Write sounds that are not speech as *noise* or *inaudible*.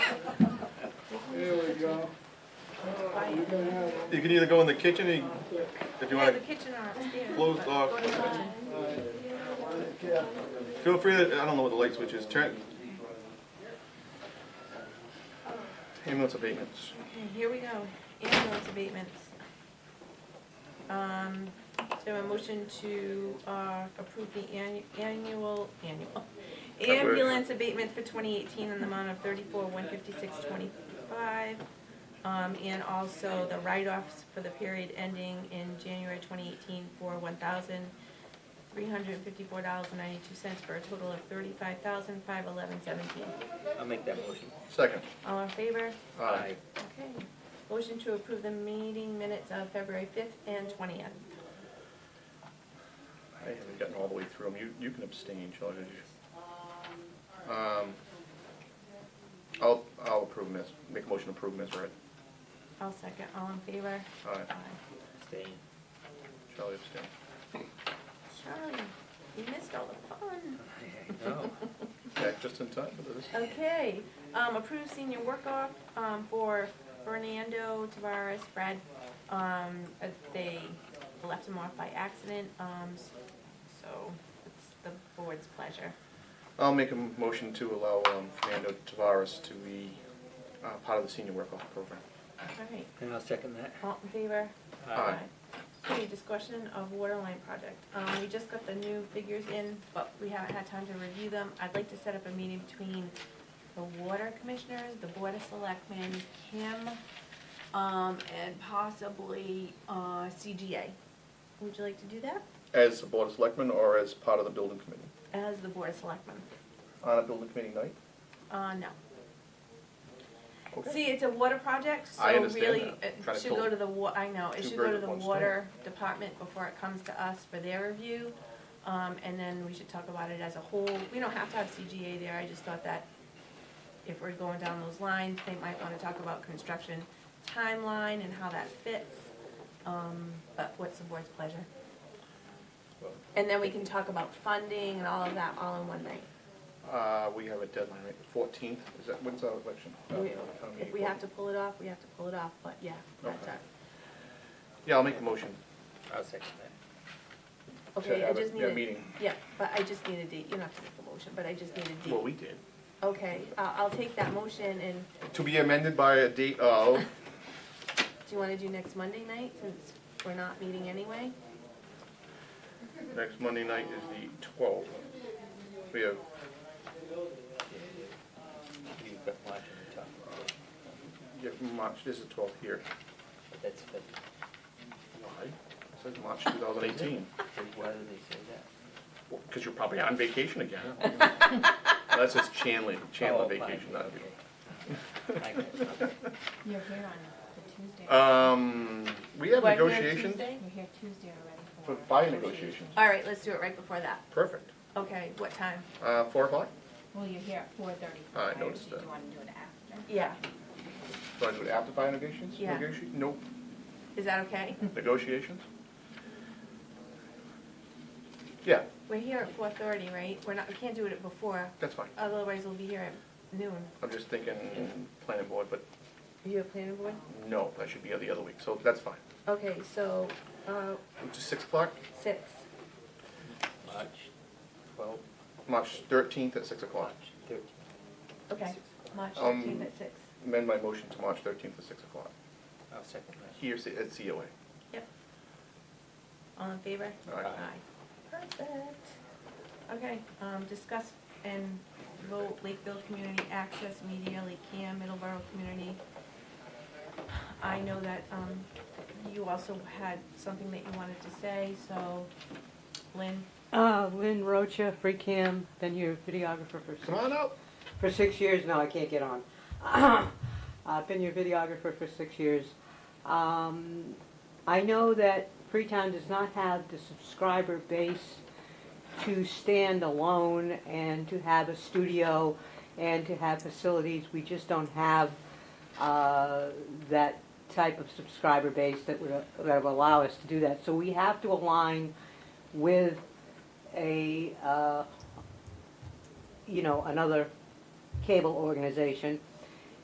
You can either go in the kitchen, or you- if you Yeah, the wanna kitchen are upstairs. close off, feel free to, I don't know what the light switch is, turn. Ambulance abatements. Okay, here we go, ambulance abatements. Um, so a motion to, uh, approve the annu- annual, annual, ambulance abatement for twenty eighteen in the amount of thirty-four, one fifty-six, twenty-five. Um, and also the write-offs for the period ending in January twenty eighteen for one thousand, three hundred and fifty-four dollars and ninety-two cents for a total of thirty-five thousand, five eleven, seventeen. I'll make that motion. Second. All in favor? Aye. Okay, motion to approve the meeting minutes of February fifth and twentieth. I haven't gotten all the way through them. You, you can abstain, Charlie. did you? Um, I'll, I'll approve them as, make a motion to approve them as read. I'll second, all in favor? Aye. Aye. Staying. Charlie abstain. Charlie, you missed all the fun. *laughs* No. Back just in time for this. *laughs* Okay, um, approve senior work off, um, for Fernando Tavares, Brad, um, uh, they left him off by accident, um, s- so it's the board's pleasure. I'll make a m- motion to allow um, Fernando Tavares to be uh, part of the senior work-off program. All right, And I'll second that. all in favor? Aye. Okay, discussion of waterline project. Um, we just got the new figures in, but we haven't had time to review them. I'd like to set up a meeting between the water commissioners, the board of selectmen, Kim, um, and possibly, uh, CGA. Would you like to do that? As a board of selectmen or as part of the building committee? As the board of selectmen? On a building committee night? Uh, no. Okay. See, it's a water project, so I understand really, that. it Trying to should go pull to the wa, I know, it two should go birds to with the one stone. water department before it comes to us for their review. Um, and then we should talk about it as a whole, we don't have to have CGA there, I just thought that if we're going down those lines, they might wanna talk about construction timeline and how that fits. Um, but what's the board's pleasure? And then we can talk about funding and all of that all in one night. Uh, we have a deadline, right, the fourteenth, is that, when's our election? We- Uh, town If meeting. we have to pull it off, we have to pull it off, but yeah, that's Okay. our Yeah, I'll make a motion. I'll second that. to Okay, I have a- just need yeah, a, meeting. yeah, but I just need a date, you don't have to make the motion, but I just need a Well, date. we did. Okay, I'll, I'll take that motion, and To be amended by a date of, do you wanna do next Monday night, since we're not meeting anyway? next Monday night is the twelfth. We have, You've got March on the top, yeah, March, this is twelfth here. but that's, but, Why? It says March two thousand eighteen. why do they say that? Because you're probably on vacation again. *laughs* That's just Chandler, Chandler Oh, fine, vacation, not you. okay. I got you. You're here on the Tuesday. Um, we have We're here negotiations, Tuesday? You're here Tuesday already for for. buy negotiations, All right, let's do it right before that. perfect. Okay, what time? Uh, four o'clock, Well, you're here at four thirty. Ah, I noticed that. Do you wanna do it after? Yeah, do I do it after buy negotiations? Yeah. Negoti- Nope, is that okay? negotiations? Yeah, We're here at four thirty, right? We're not, we can't do it before, that's fine, otherwise we'll be here at noon. I'm just thinking planning board, but Are you a planning board? no, that should be the other week, so that's fine. Okay, so, uh, Which is six o'clock, six, March twelve, March thirteenth at six o'clock. March thirteen. okay, March Um, fifteenth at six. Amend my motion to March thirteenth at six o'clock, I'll second that. here at COA. Yep. All in favor? Aye. Perfect. Okay, um, discuss and vote Lakeville Community Access Media, Lake Cam, Middleborough Community. I know that, um, you also had something that you wanted to say, so Lynn, Uh, Lynn Rocha, free cam, been your videographer for Come six, on up. for six years now, I can't get on. *clears throat* I've been your videographer for six years. Um, I know that Freetown does not have the subscriber base to stand alone and to have a studio and to have facilities. We just don't have, uh, that type of subscriber base that would, that would allow us to do that. So we have to align with a, uh, you know, another cable organization